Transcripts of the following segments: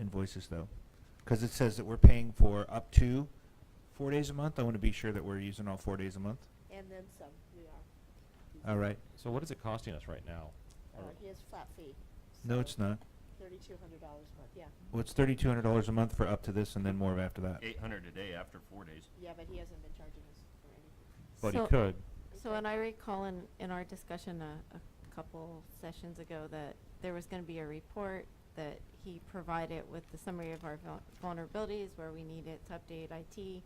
invoices though, because it says that we're paying for up to four days a month. I want to be sure that we're using all four days a month. And then some, we are. All right. So what is it costing us right now? Uh, Are- he has flat fee. No, it's not. Thirty-two hundred dollars a month, yeah. Well, it's thirty-two hundred dollars a month for up to this and then more after that. Eight hundred a day after four days. Yeah, but he hasn't been charging us for anything. But he So- could. So, and I recall in, in our discussion a, a couple sessions ago that there was gonna be a report that he provided with the summary of our vul- vulnerabilities, where we needed to update IT,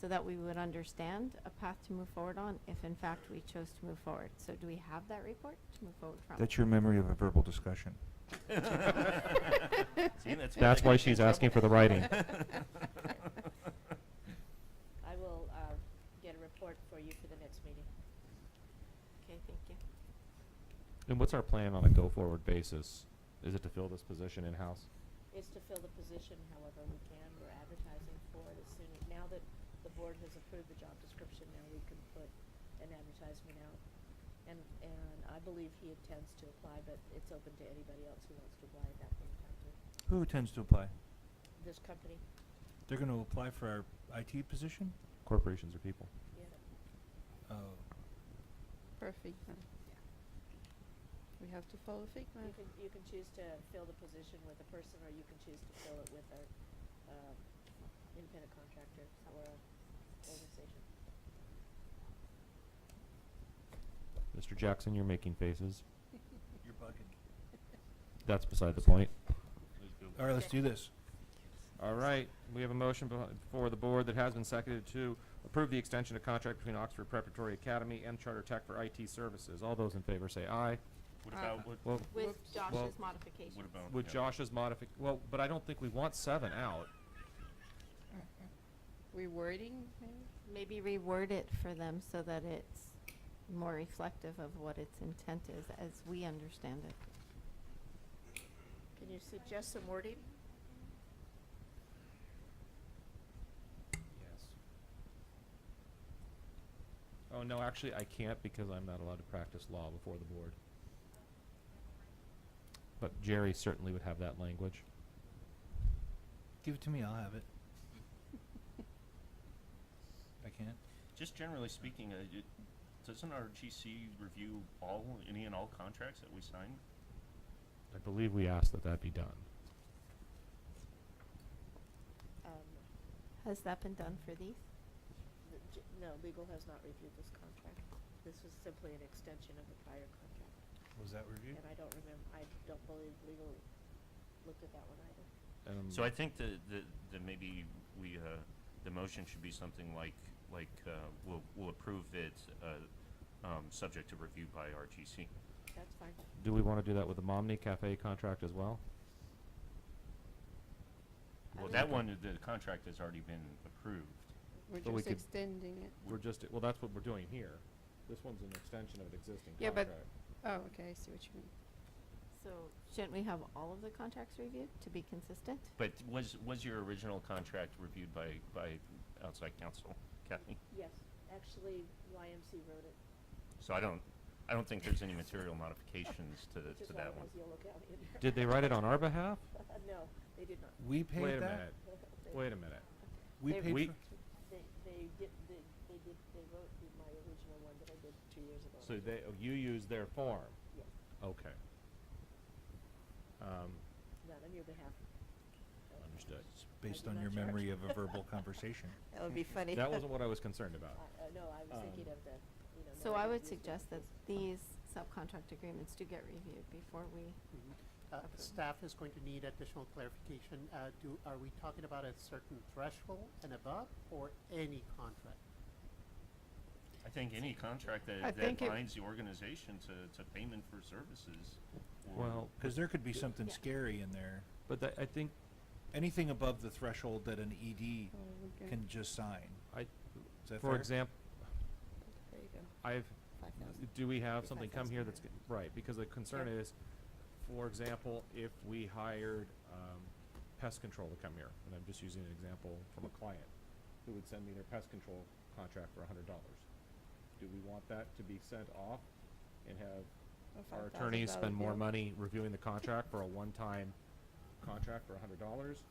so that we would understand a path to move forward on, if in fact we chose to move forward. So do we have that report to move forward from? That's your memory of a verbal discussion. See, that's why. That's I why get she's in asking for the trouble. writing. I will, uh, get a report for you for the next meeting. Okay, thank you. And what's our plan on a go-forward basis? Is it to fill this position in-house? It's to fill the position however we can. We're advertising for it as soon, as now that the board has approved the job description, now we can put an advertisement out. And, and I believe he intends to apply, but it's open to anybody else who wants to apply at that point in time too. Who tends to apply? This company, They're going to apply for our IT position? Corporations or people? yeah. Oh. For FIGMA. We have to follow FIGMA. You can, you can choose to fill the position with a person, or you can choose to fill it with a, um, independent contractor or a organization. Mr. Jackson, you're making faces. You're bugging. That's beside the point. Let's do it. All right, let's do this. All right, we have a motion beh- before the board that has been seconded to approve the extension of contract between Oxford Preparatory Academy and Charter Tech for IT services. All those in favor say aye. What Uh, about, what, Well, With Well- Whoops. Josh's modifications. what about? with yeah. Josh's modific, well, but I don't think we want seven out. Rewording, maybe? Maybe reword it for them so that it's more reflective of what its intent is, as we understand it. Can you suggest some wording? Yes. Oh, no, actually, I can't because I'm not allowed to practice law before the board. But Jerry certainly would have that language. Give it to me, I'll have it. I can't. Just generally speaking, uh, it- doesn't our GC review all, any and all contracts that we sign? I believe we asked that that be done. Um, Has that been done for these? the j- no, legal has not reviewed this contract. This was simply an extension of the prior contract, Was that reviewed? and I don't remember, I don't believe legal looked at that one either. Um, So I think the, the, the maybe we, uh, the motion should be something like, like, uh, we'll, we'll approve it, uh, um, subject to review by our GC. That's fine. Do we want to do that with the Momney Cafe contract as well? I Well, would that agree. one, the contract has already been approved. We're But we just could- extending it. We're just, well, that's what we're doing here. This one's an extension of an existing Yeah, but- contract. Oh, okay, I see what you mean. So shouldn't we have all of the contracts reviewed to be consistent? But was, was your original contract reviewed by, by outside counsel, Kathy? Yes, actually, YMC wrote it. So I don't, I don't think there's any material modifications to, to that one. Which is why it has Yolo County in there. Did they write it on our behalf? Uh, No, they did not. We paid Wait a that? minute, They- wait a minute. We They- paid We- for- They, they did, they, they did, they wrote the- my original one that I did two years ago. So they, oh, you used their form? Yes, Okay. Um, not on your behalf. Uh, understood. It's based did on not your charge. memory of a verbal conversation. That would be funny. That wasn't what I was concerned about. I- uh, no, I was thinking Um, of the, you know. So now I that would you've suggest that used it. these subcontract agreements do get reviewed before we, Uh, Okay. Staff is going to need additional clarification. Uh, do, are we talking about a certain threshold and above, or any contract? I think any contract I that, that think it- binds the organization to, to payment for services. or- Well, Because there could be something Yeah. scary in there. but that, I think, Anything above the threshold that an Oh, ED we're good. can just sign. I, Is that for fair? example, There you go, I've, five thousand. do we have Five something come here that's, thousand. g- right, because the concern Yeah. is, for example, if we hired, um, pest control to come here, and I'm just using an example from a client, who would send me their pest control contract for a hundred dollars. Do we want that to be sent off and have Oh, our $5,000 attorneys spend more bill. money reviewing the contract for a one-time contract for a hundred dollars?